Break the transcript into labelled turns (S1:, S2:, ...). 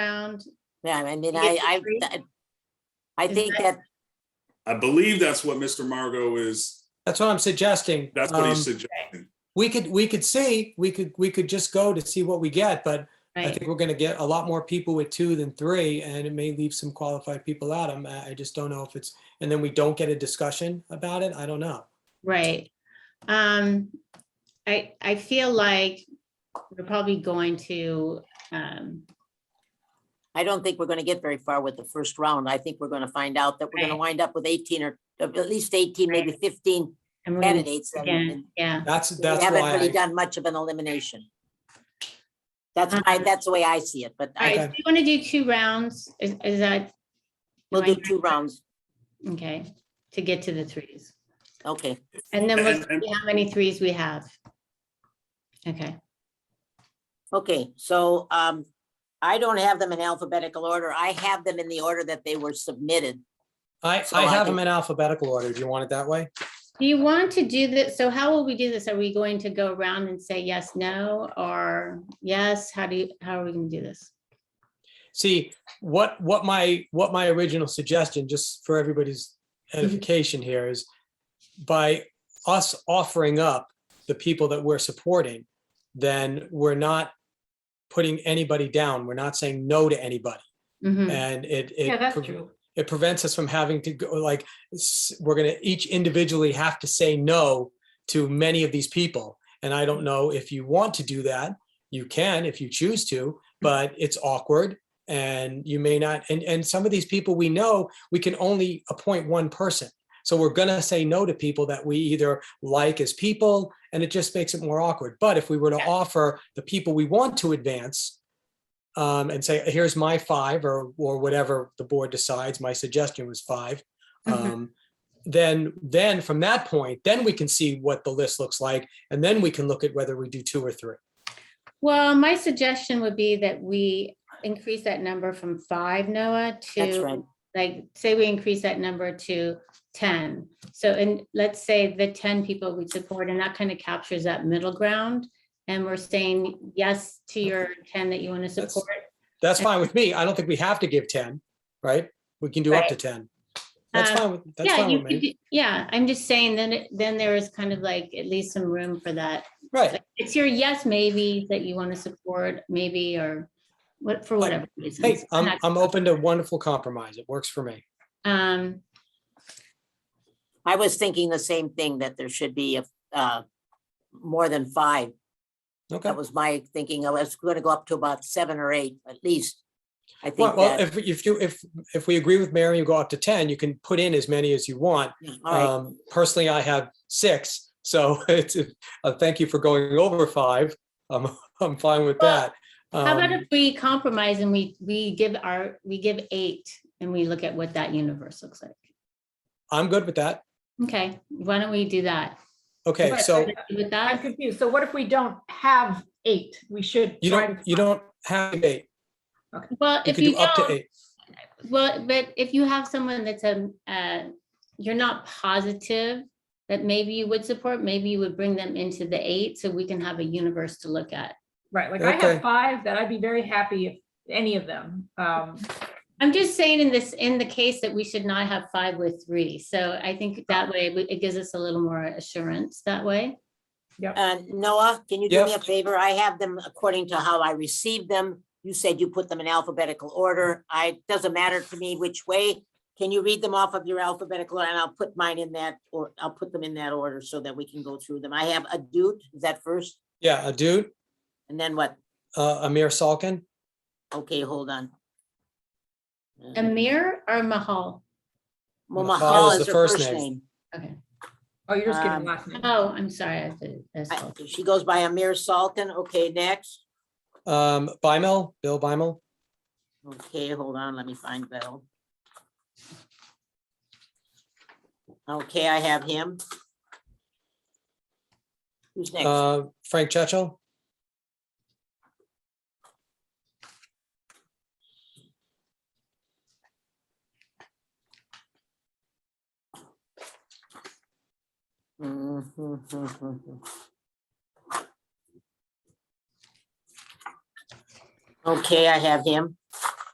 S1: around?
S2: Yeah, I mean,
S1: You
S2: I,
S1: get
S2: I,
S1: three?
S2: that- I
S1: Is
S2: think that,
S1: that-
S3: I believe that's what Mr. Margot is,
S4: That's what I'm suggesting.
S3: that's what
S4: Um,
S3: he suggesting.
S4: We could, we could see, we could, we could just go to see what we get, but I
S1: Right.
S4: think we're gonna get a lot more people with two than three, and it may leave some qualified people out. I'm, I I just don't know if it's, and then we don't get a discussion about it. I don't know.
S1: Right. Um, I, I feel like we're probably going to, um,
S2: I don't think we're gonna get very far with the first round. I think we're gonna find out that we're gonna
S1: Right.
S2: wind up with eighteen or at least eighteen, maybe fifteen
S1: and we're gonna,
S2: candidates. and-
S1: again, yeah,
S4: That's,
S2: and We
S4: that's
S2: haven't
S4: why,
S2: really
S4: I-
S2: done much of an elimination. That's
S1: Um,
S2: my, that's the way I see it, but
S1: all
S2: I,
S1: right, do you want to do two rounds? Is, is that?
S2: we'll
S1: am
S2: do
S1: I-
S2: two rounds.
S1: Okay, to get to the threes.
S2: Okay,
S1: And then we'll
S3: And- and-
S1: see how many threes we have. Okay,
S2: okay, so, um, I don't have them in alphabetical order. I have them in the order that they were submitted.
S4: I,
S2: so
S4: I
S2: I
S4: have
S2: think-
S4: them in alphabetical order. Do you want it that way?
S1: do you want to do this? So how will we do this? Are we going to go around and say yes, no, or yes? How do you, how are we gonna do this?
S4: See, what, what my, what my original suggestion, just for everybody's
S5: Mm-hmm.
S4: edification here is by us offering up the people that we're supporting, then we're not putting anybody down. We're not saying no to anybody.
S1: Mhm.
S4: And Uh, it,
S5: Mm. Yeah,
S4: it,
S5: that's
S4: pre-
S5: true.
S4: it prevents us from having to go like, s- we're going to each individually have to say no to many of these people. And I don't know if you want to do that. You can if you choose to, but it's awkward and you may not. And, and some of these people we know, we can only appoint one person. So we're going to say no to people that we either like as people and it just makes it more awkward. But if we were to offer the people we want to advance, um, and say, here's my five or, or whatever the board decides, my suggestion was five.
S1: Mhm.
S4: Um, then, then from that point, then we can see what the list looks like and then we can look at whether we do two or three.
S1: Well, my suggestion would be that we increase that number from five, Noah,
S2: That's right.
S1: to, like, say we increase that number to ten. So, and let's say the ten people we support, and that kind of captures that middle ground. And we're saying yes to your ten that you want to
S4: That's-
S1: support.
S4: That's fine with me. I don't think we have to give ten, right? We can do up to ten. That's
S1: Um,
S4: fine with, that's
S1: Yeah,
S4: fine
S1: you
S4: with
S1: could
S4: me.
S1: do- yeah, I'm just saying, then, it- then there is kind of like, at least some room for that.
S4: Right.
S1: Like, It's your yes, maybe, that you want to support, maybe, or what, for whatever
S4: Hey,
S1: reasons.
S4: I'm, I'm open to wonderful compromise. It works for me.
S1: Um,
S2: I was thinking the same thing, that there should be, a uh, more than five.
S4: Okay.
S2: That was my thinking. I was going to go up to about seven or eight at least. I
S4: Well,
S2: think
S4: well,
S2: that,
S4: if, if you, if, if we agree with Mary and go up to ten, you can put in as many as you want.
S2: yeah, all right,
S4: Um, personally, I have six, so it's, uh, thank you for going over five. I'm, I'm fine with
S1: Well,
S4: that.
S1: How about
S4: Um,
S1: if we compromise and we, we give our, we give eight and we look at what that universe looks like?
S4: I'm good with that.
S1: Okay, why don't we do that?
S4: Okay,
S5: Right,
S4: so
S5: right.
S1: With
S5: I'm
S1: that,
S5: confused. So what if we don't have eight? We should.
S4: you
S5: try
S4: don't,
S5: to-
S4: you don't have eight.
S1: well,
S4: You
S1: if
S4: could do
S1: you
S4: up to
S1: don't,
S4: eight.
S1: well, but if you have someone that's a, uh, you're not positive that maybe you would support, maybe you would bring them into the eight so we can have a universe to look at.
S5: Right, like I
S4: Okay.
S5: have five that I'd be very happy if any of them. Um,
S1: I'm just saying in this, in the case that we should not have five with three. So I think that way we- it gives us a little more assurance that way.
S2: Uh, Noah, can you do me a
S4: Yes.
S2: favor? I have them according to how I received them. You said you put them in alphabetical order. I, doesn't matter to me which way. Can you read them off of your alphabetical and I'll put mine in that, or I'll put them in that order so that we can go through them. I have a dude, is that first?
S4: Yeah, a dude,
S2: And then what?
S4: uh, Amir Salkin,
S2: Okay, hold on. Uh,
S1: Amir or Mahal?
S2: Well,
S4: Mahal
S2: Mahal
S4: is
S2: is
S4: the
S2: her
S4: first
S2: first
S4: name.
S2: name.
S1: Okay.
S5: oh, you're just
S2: Um,
S5: giving last name.
S1: Oh, I'm sorry. I said- I
S2: I-
S1: saw-
S2: She goes by Amir Salkin. Okay, next.
S4: um, Bimel, Bill Bimel.
S2: Okay, hold on, let me find Bill. Okay, I have him. Who's next?
S4: Uh, Frank Chechel,
S2: Okay, I have him.